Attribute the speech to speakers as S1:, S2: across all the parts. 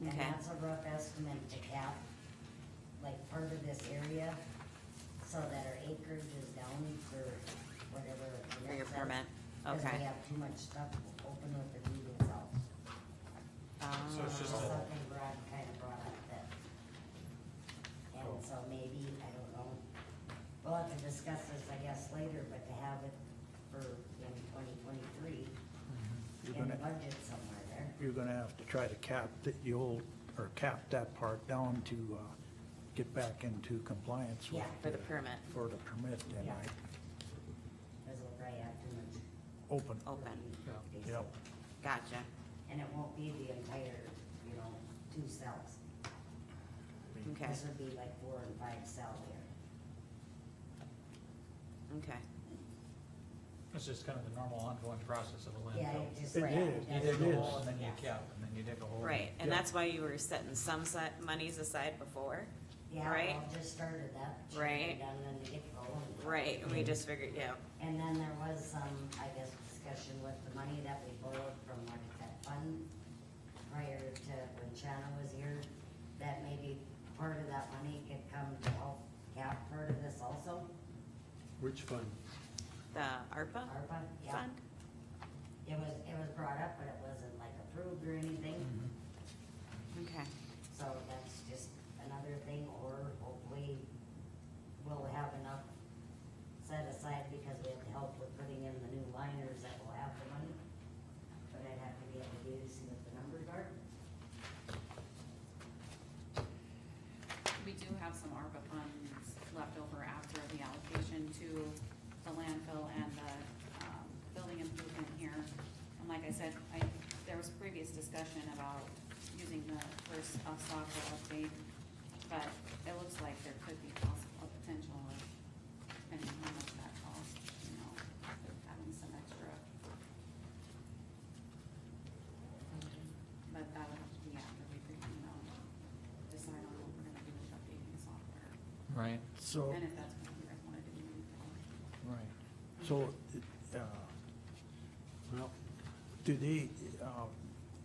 S1: And
S2: Okay.
S1: that's a rough estimate to cap, like part of this area, so that our acreage is down for whatever. the
S2: for your
S1: next step,
S2: permit,
S1: Cause
S2: okay.
S1: we have too much stuff open with the meeting house.
S3: So it's
S2: Ah,
S3: just a-
S1: Something Brad kinda brought up that. And so maybe, I don't know, we'll have to discuss this, I guess, later, but to have it for in twenty twenty-three,
S4: You're
S1: in the
S4: gonna-
S1: budget somewhere there.
S4: You're gonna have to try to cap the the old, or cap that part down to, uh, get back into compliance with.
S1: Yeah.
S2: For the permit,
S4: For the permit, then
S1: Yeah.
S4: I
S1: Cause we'll probably have too much.
S4: open,
S2: open,
S1: basically.
S4: yep.
S2: gotcha,
S1: And it won't be the entire, you know, two cells.
S3: Mm-hmm.
S2: okay,
S1: This would be like four and five cell here.
S2: okay.
S3: It's just kind of the normal ongoing process of a
S1: Yeah,
S3: landfill.
S1: it just.
S4: It
S1: right,
S4: is,
S3: You
S1: that's-
S3: dig
S4: It
S3: a hole
S4: is.
S3: and then you
S1: Yes.
S3: cap, and then you dig a hole.
S2: Right, and
S4: Yeah.
S2: that's why you were setting some set monies aside before,
S1: Yeah,
S2: Right.
S1: well, just started that. should be
S2: Right.
S1: Done in the get-go. and-
S2: right, we
S3: Mm-hmm.
S2: just figured, yeah,
S1: And then there was some, I guess, discussion with the money that we borrowed from what is that fund prior to when Shanna was here, that maybe part of that money could come to help cap part of this also,
S5: Which fund?
S2: the ARPA
S1: ARPA, yeah.
S2: fund?
S1: It was, it was brought up, but it wasn't like approved or anything.
S2: Okay,
S1: So that's just another thing, or hopefully we'll have enough set aside because we have to help with putting in the new liners that will have the money. But I'd have to be able to do to see what the numbers are.
S6: We do have some ARPA funds left over after the allocation to the landfill and the, um, building improvement here. And like I said, I, there was previous discussion about using the first uh, software update, but it looks like there could be possible potential of, depending on how much that costs, you know, having some extra. But that would have to be after we, you know, decide on what we're gonna do with updating the software.
S3: Right.
S4: So,
S6: And if that's what you guys wanna do. moving forward.
S4: right, so, uh,
S5: Well,
S4: do they, uh,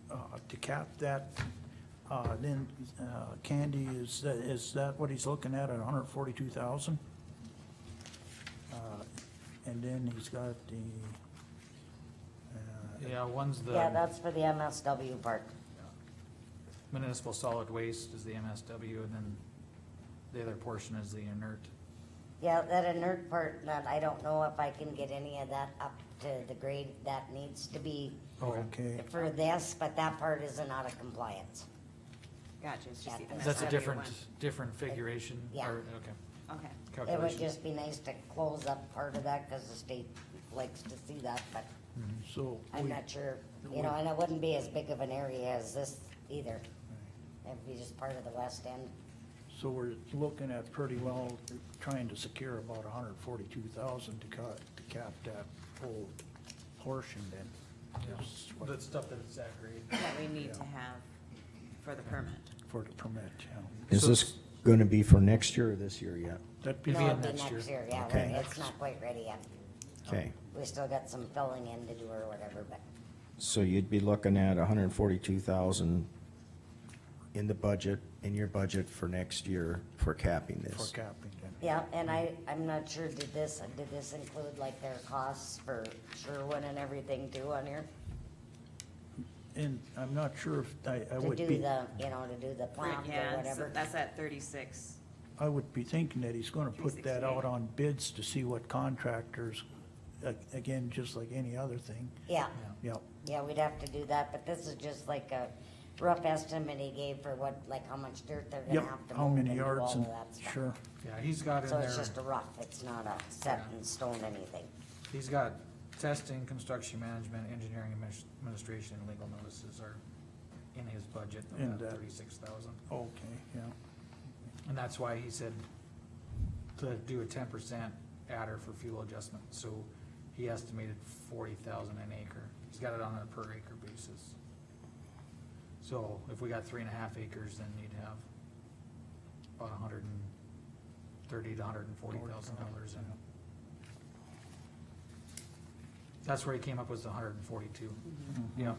S4: uh, to cap that, uh, then, uh, Candy, is, tha- is that what he's looking at, at hundred forty-two thousand? Uh, and then he's got the, uh,
S3: Yeah, one's
S1: Yeah,
S3: the
S1: that's for the MSW part.
S3: municipal solid waste is the MSW, and then the other portion is the inert.
S1: Yeah, that inert part, that I don't know if I can get any of that up to the grade that needs to be
S4: okay,
S1: for this, but that part isn't out of compliance.
S2: gotcha, it's just the
S1: Yeah.
S3: That's a
S2: MSW
S3: different,
S2: one.
S3: different figuration,
S1: Yeah.
S3: or, okay,
S2: Okay,
S1: It would
S3: calculation.
S1: just be nice to close up part of that, cause the state likes to see that, but
S4: so.
S1: I'm
S4: Hmm. we-
S1: not sure,
S4: we-
S1: you know, and it wouldn't be as big of an area as this either.
S4: right.
S1: It'd be just part of the west end.
S4: So we're looking at pretty well trying to secure about a hundred forty-two thousand to cut, to cap that whole portion then. is what-
S3: The stuff that's that grade.
S2: that we need to have for the permit.
S4: For the permit, yeah.
S7: Is
S3: So
S7: this
S3: it's-
S7: gonna be for next year or this year yet?
S4: That'd be,
S3: It'd be
S1: No,
S3: in
S1: it'd be
S3: next
S1: next
S3: year.
S1: year, yeah,
S7: Okay.
S1: it's not quite ready yet.
S7: Okay,
S1: We still got some filling in to do or whatever, but,
S7: so you'd be looking at hundred and forty-two thousand in the budget, in your budget for next year for capping
S4: for
S7: this?
S4: capping then.
S1: yeah, and I, I'm not sure, did this, did this include like their costs for Sherwin and everything too on here?
S4: And I'm not sure if, I, I
S1: To
S4: would
S1: do
S4: be,
S1: the, you know, to do the plant or
S2: Yeah, so
S1: whatever?
S2: that's at thirty-six,
S4: I would be thinking that he's gonna put that out
S2: 368.
S4: on bids to see what contractors, a- again, just like any other thing,
S1: Yeah,
S4: yep.
S1: yeah, we'd have to do that, but this is just like a rough estimate he gave for what, like how much dirt they're gonna
S4: Yep,
S1: have to
S4: how
S1: move and
S4: many
S1: do all
S4: yards
S1: of
S4: and,
S1: that stuff.
S4: sure,
S3: Yeah, he's got in
S1: So it's
S3: there,
S1: just a rough, it's not a set in stone anything.
S3: he's got testing, construction management, engineering adminis- administration, and legal notices are in his budget
S4: In
S3: of that
S4: that.
S3: thirty-six thousand.
S4: okay, yeah,
S3: And that's why he said to do a ten percent adder for fuel adjustment, so he estimated forty thousand an acre. He's got it on a per acre basis. So if we got three and a half acres, then you'd have about a hundred and thirty to hundred and forty thousand dollars in. That's where he came up with the hundred and forty-two. Yeah.